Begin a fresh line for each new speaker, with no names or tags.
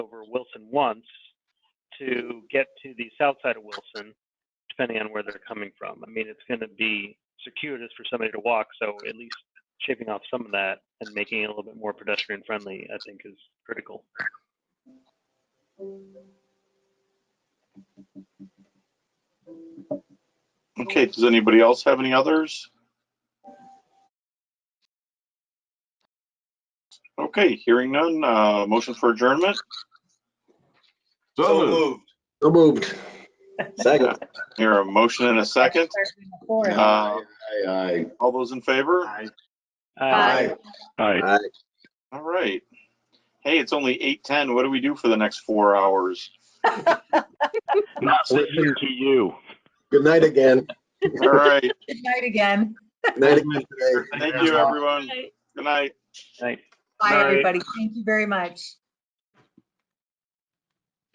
over Wilson once to get to the south side of Wilson, depending on where they're coming from. I mean, it's going to be circuitous for somebody to walk, so at least shaving off some of that and making it a little bit more pedestrian friendly, I think, is critical.
Okay, does anybody else have any others? Okay, hearing none, uh, motion for adjournment?
So moved.
So moved. Second.
Here, a motion and a second. Uh,
Aye, aye.
all those in favor?
Aye.
Uh,
Aye.
Aye.
All right. Hey, it's only 8:10. What do we do for the next four hours?
Not listening to you.
Good night again.
All right,
Good night again.
Good night again today.
thank you, everyone. Good night.
right.
Bye,
Night.
everybody. Thank you very much.